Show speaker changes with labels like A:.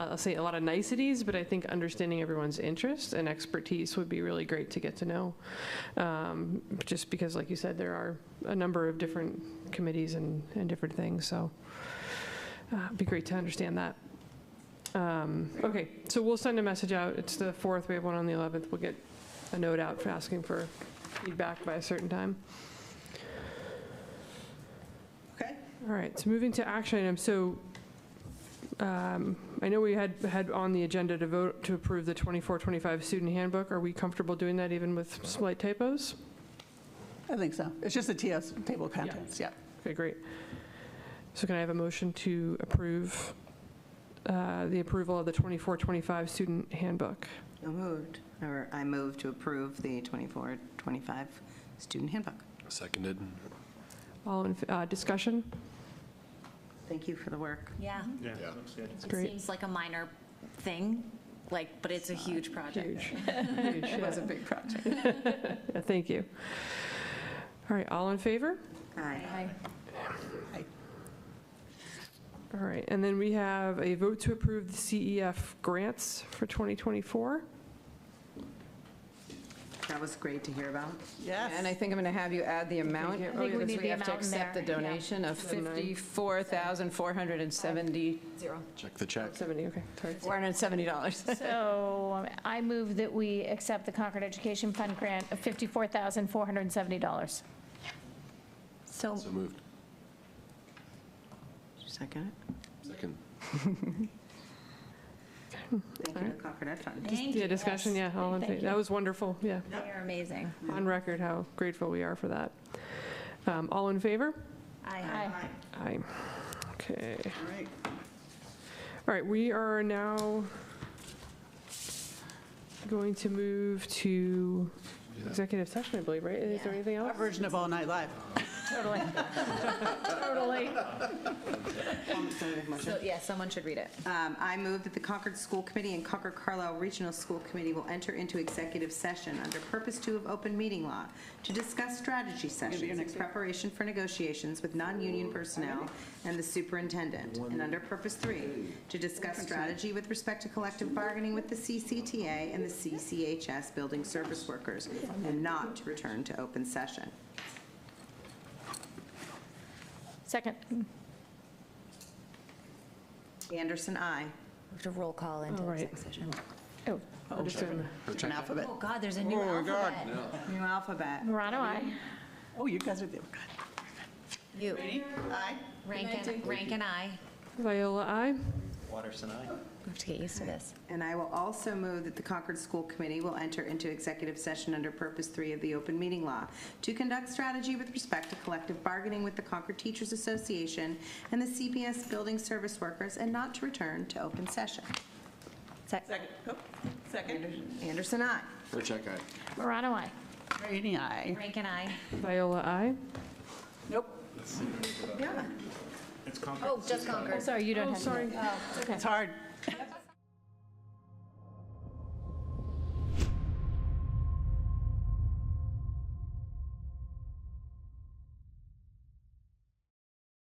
A: I'll say a lot of niceties, but I think understanding everyone's interest and expertise would be really great to get to know. Um, Just because, like you said, there are a number of different committees and, and different things, so uh, it'd be great to understand that. Um, Okay, so we'll send a message out. It's the 4th, we have one on the 11th. We'll get a note out for asking for feedback by a certain time.
B: Okay.
A: All right, so moving to action items, so um, I know we had, had on the agenda to vote to approve the 24-25 student handbook. Are we comfortable doing that even with slight typos?
B: I think so. It's just a TS, table of contents, yeah.
A: Okay, great. So can I have a motion to approve uh, the approval of the 24-25 student handbook?
C: So moved, or I move to approve the 24, 25 student handbook.
D: Seconded.
A: All in, uh, discussion?
C: Thank you for the work.
E: Yeah,
F: Yeah,
D: Yeah.
F: looks good.
E: it
A: Mm-hmm. great.
E: seems like a minor thing, like, but it's a huge project.
A: Huge. Huge,
B: It was
A: yeah.
B: a big project.
A: Yeah, Thank you. All right, all in favor?
C: Aye.
A: All right, and then we have a vote to approve the CEF grants for 2024.
C: That was great to hear about.
B: Yes.
G: And I think I'm going to have you add the amount.
A: you. I think Oh, yeah, we
E: need
G: because
E: the
G: have to
E: amount in
G: accept the
E: there, yeah.
G: donation of
A: Seven nine.
G: $54,470,
E: Zero.
D: Check the check.
A: 70, okay, sorry.
G: $470.
H: So um, I move that we accept the Concord Education Fund grant of $54,470.
E: So
D: So moved.
C: Second it?
D: Second.
C: Thank you to Concord Ed Fund.
E: Thank
A: Yeah,
E: you.
A: discussion, yeah,
E: Yes.
A: all in
H: Thank
A: favor.
H: you.
A: That was wonderful, yeah.
E: They are amazing.
A: On record how grateful we are for that. Um, All in favor?
E: Aye.
A: Aye. Okay.
B: All right.
A: All right, we are now going to move to executive session, I believe, right? Is there anything
B: Our
A: else?
B: version of All Night Live.
H: Totally. Totally.
E: So, yeah, someone should read it.
C: Um, I move that the Concord School Committee and Concord Carlisle Regional School Committee will enter into executive session under Purpose 2 of Open Meeting Law to discuss strategy sessions in preparation for negotiations with non-union personnel and the superintendent, and under Purpose 3, to discuss strategy with respect to collective bargaining with the CCTA and the CCHS building service workers, and not to return to open session.
H: Second.
C: Anderson, aye.
E: We have to roll call into
A: All right.
E: exec session.
H: Oh,
A: I'll just, um,
B: Different alphabet.
E: Oh, God, there's a new
B: Oh, my God.
E: alphabet.
C: New alphabet.
H: Morano, aye.
B: Oh, you guys are there.
E: You,
B: Ready? Aye.
E: Rankin, Rankin, aye.
A: Viola, aye?
F: Waters and I.
E: We have to get used to this.
C: And I will also move that the Concord School Committee will enter into executive session under Purpose 3 of the Open Meeting Law to conduct strategy with respect to collective bargaining with the Concord Teachers Association and the CPS Building Service Workers, and not to return to open session.
B: Second. Oh, Second.
C: Anderson, aye.
D: For check, aye.
H: Morano, aye.
B: Rainey, aye.
E: Rankin, aye.
A: Viola, aye?
B: Nope.
C: Yeah.
F: It's Concord.
E: Oh, just Concord.
H: Sorry, you don't have. to.
A: Sorry.
B: It's hard.